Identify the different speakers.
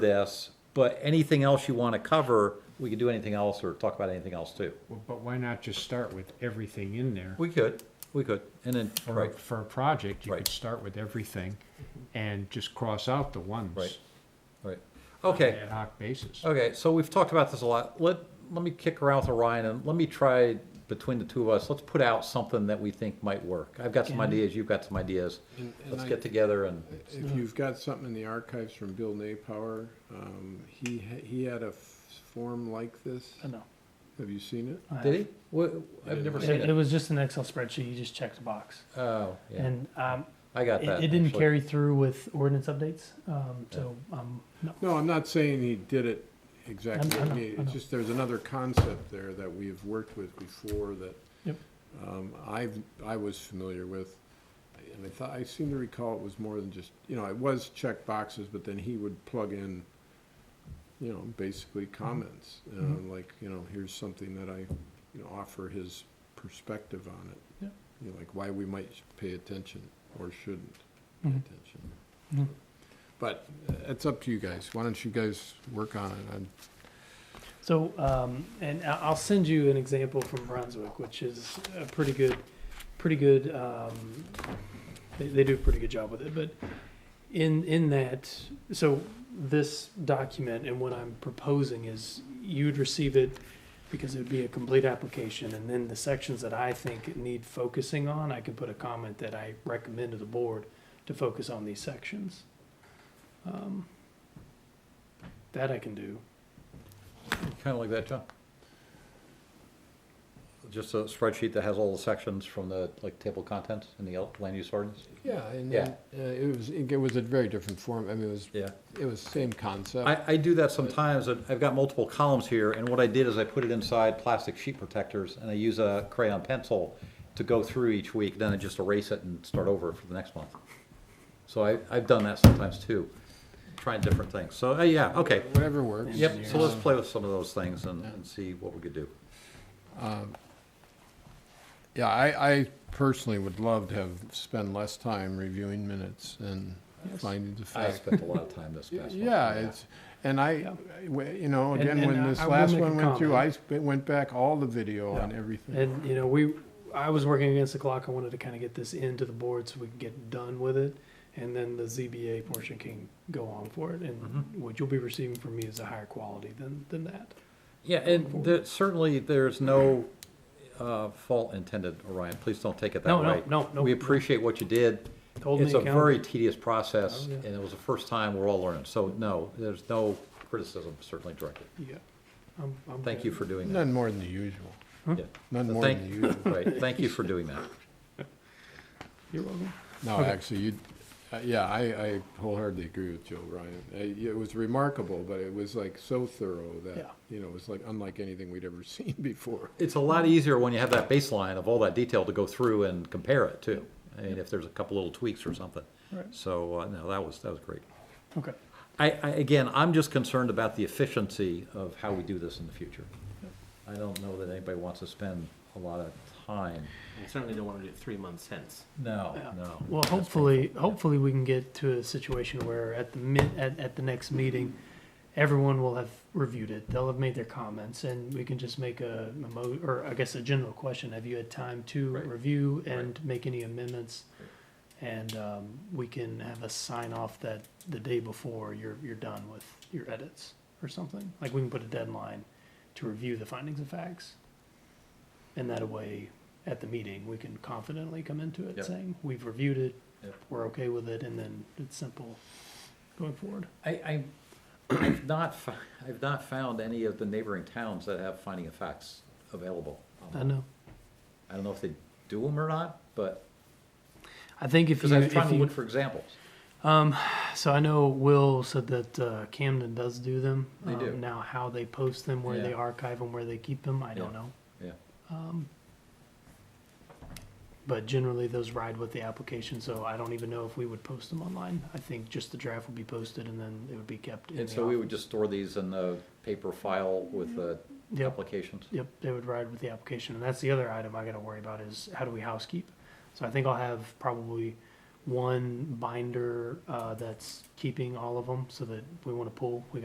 Speaker 1: this, but anything else you want to cover, we could do anything else or talk about anything else too.
Speaker 2: Well, But why not just start with everything in there?
Speaker 1: We could, we could, and then,
Speaker 2: For,
Speaker 1: right,
Speaker 2: a- for a project, you
Speaker 1: Right.
Speaker 2: could start with everything and just cross out the ones.
Speaker 1: Right. right.
Speaker 2: on an
Speaker 1: Okay,
Speaker 2: Ad hoc basis.
Speaker 1: okay, so we've talked about this a lot. Let, let me kick around with Orion and let me try, between the two of us, let's put out something that we think might work. I've got some ideas, you've got some ideas.
Speaker 3: And- and
Speaker 1: Let's
Speaker 3: I-
Speaker 1: get together and,
Speaker 3: If you've got something in the archives from Bill Napower, um, he, ha- he had a f- form like this.
Speaker 4: I know.
Speaker 3: Have you seen it?
Speaker 4: I
Speaker 1: did
Speaker 4: have.
Speaker 1: he? What, I've never seen
Speaker 4: It, it
Speaker 1: it.
Speaker 4: was just an Excel spreadsheet. You just checked a box,
Speaker 1: Oh, yeah,
Speaker 4: and um,
Speaker 1: I got
Speaker 4: it,
Speaker 1: that.
Speaker 4: it didn't
Speaker 1: actually.
Speaker 4: carry through with ordinance updates. Um, so um, no.
Speaker 3: No, I'm not saying he did it
Speaker 4: I
Speaker 3: exactly.
Speaker 4: know,
Speaker 3: I mean,
Speaker 4: I know.
Speaker 3: It's just, there's another concept there that we've worked with before that
Speaker 4: Yep.
Speaker 3: um, I've, I was familiar with. And I thought, I seem to recall it was more than just, you know, it was check boxes, but then he would plug in, you know, basically
Speaker 4: Mm-hmm.
Speaker 3: comments. Um, Like, you know, here's something that I, you know, offer his perspective on it.
Speaker 4: Yep.
Speaker 3: You know, like why we might pay attention or shouldn't pay
Speaker 4: Mhm.
Speaker 3: attention.
Speaker 4: Mhm.
Speaker 3: But uh, it's up to you guys. Why don't you guys work on it? I'm-
Speaker 4: So um, and I- I'll send you an example from Brunswick, which is a pretty good, pretty good. Um, they, they do a pretty good job with it, but in in that, so this document and what I'm proposing is you'd receive it because it would be a complete application, and then the sections that I think need focusing on, I can put a comment that I recommend to the board to focus on these sections. Um, that I can do.
Speaker 1: Kind of like that, John. Just a spreadsheet that has all the sections from the, like, table of contents in the land use ordinance?
Speaker 3: Yeah, and
Speaker 1: Yeah.
Speaker 3: then, uh, it was, it was a very different form. I mean, it was,
Speaker 1: Yeah.
Speaker 3: it was same concept.
Speaker 1: I, I do that sometimes, and I've got multiple columns here, and what I did is I put it inside plastic sheet protectors, and I use a crayon pencil to go through each week, then I just erase it and start over for the next month. So I, I've done that sometimes too, trying different things, so, uh, yeah, okay.
Speaker 3: Whatever works.
Speaker 1: Yep, so let's play with some of those things and, and see what we could do.
Speaker 3: Yeah, I, I personally would love to have spent less time reviewing minutes and finding the
Speaker 1: I
Speaker 3: fact.
Speaker 1: spent a lot of time this past month.
Speaker 3: Yeah, it's, and I, you know,
Speaker 4: And-
Speaker 3: again,
Speaker 4: and
Speaker 3: when
Speaker 1: uh,
Speaker 4: I-
Speaker 3: this
Speaker 4: I will
Speaker 3: last
Speaker 4: make a
Speaker 3: one went through, I sp- went back all the video and everything.
Speaker 4: And you know, we I was working against the clock. I wanted to kind of get this into the board so we can get done with it, and then the ZBA portion can go on for it. And
Speaker 1: Mm-hmm.
Speaker 4: what you'll be receiving from me is a higher quality than than that.
Speaker 1: Yeah, and there- certainly, there's no uh, fault intended, Orion, please don't take it that
Speaker 4: No, no,
Speaker 1: way.
Speaker 4: no, no.
Speaker 1: We appreciate what you did.
Speaker 4: Hold me
Speaker 1: It's a
Speaker 4: accountable.
Speaker 1: very tedious process,
Speaker 4: Oh, yeah.
Speaker 1: and it was the first time we're all learning, so no, there's no criticism certainly directed.
Speaker 4: Yeah. I'm, I'm
Speaker 1: Thank
Speaker 4: good.
Speaker 1: you for doing that.
Speaker 3: None more than the usual,
Speaker 1: Yeah.
Speaker 3: none
Speaker 1: So
Speaker 3: more
Speaker 1: thank-
Speaker 3: than the usual.
Speaker 1: Right, thank you for doing that.
Speaker 4: You're welcome.
Speaker 3: No, actually, you, uh, yeah, I, I wholeheartedly agree with Joe Ryan. Uh, y- It was remarkable, but it was like so thorough
Speaker 4: Yeah.
Speaker 3: that, you know, it was like unlike anything we'd ever seen before.
Speaker 1: It's a lot easier when you have that baseline of all that detail to go through and compare it too. I mean, if there's a couple little tweaks or something.
Speaker 4: Right.
Speaker 1: So, uh, no, that was, that was great.
Speaker 4: Okay.
Speaker 1: I, I, again, I'm just concerned about the efficiency of how we do this in the future. I don't know that anybody wants to spend a lot of time.
Speaker 5: I certainly don't want to do it three months hence.
Speaker 1: No,
Speaker 4: Yeah.
Speaker 1: no.
Speaker 4: Well, hopefully, hopefully we can get to a situation where at the min, at, at the next meeting, everyone will have reviewed it. They'll have made their comments and we can just make a, a mo, or I guess a general question. Have you had time to
Speaker 1: Right.
Speaker 4: review and make any amendments? And, um, we can have a sign off that the day before you're, you're done with your edits or something. Like we can put a deadline to review the findings and facts. And that way, at the meeting, we can confidently come into it
Speaker 1: Yep.
Speaker 4: saying, we've reviewed it,
Speaker 1: Yep.
Speaker 4: we're okay with it, and then it's simple going forward.
Speaker 1: I, I, I've not, fo- I've not found any of the neighboring towns that have finding of facts available.
Speaker 4: I know.
Speaker 1: I don't know if they do them or not, but,
Speaker 4: I think if
Speaker 1: because
Speaker 4: you,
Speaker 1: I was trying
Speaker 4: if
Speaker 1: to
Speaker 4: you,
Speaker 1: look for examples.
Speaker 4: so I know Will said that uh, Camden does do them.
Speaker 1: They
Speaker 4: Um,
Speaker 1: do.
Speaker 4: Now, how they post them, where they
Speaker 1: Yeah.
Speaker 4: archive them, where they keep them, I don't
Speaker 1: Yeah.
Speaker 4: know. Um,
Speaker 1: Yeah,
Speaker 4: But generally, those ride with the application, so I don't even know if we would post them online. I think just the draft would be posted and then it would be kept in
Speaker 1: and
Speaker 4: the
Speaker 1: so we
Speaker 4: office.
Speaker 1: would just store these in the paper file with the
Speaker 4: Yep.
Speaker 1: applications.
Speaker 4: Yep, they would ride with the application, and that's the other item I gotta worry about is how do we housekeep? So I think I'll have probably one binder uh, that's keeping all of them so that we want to pull. We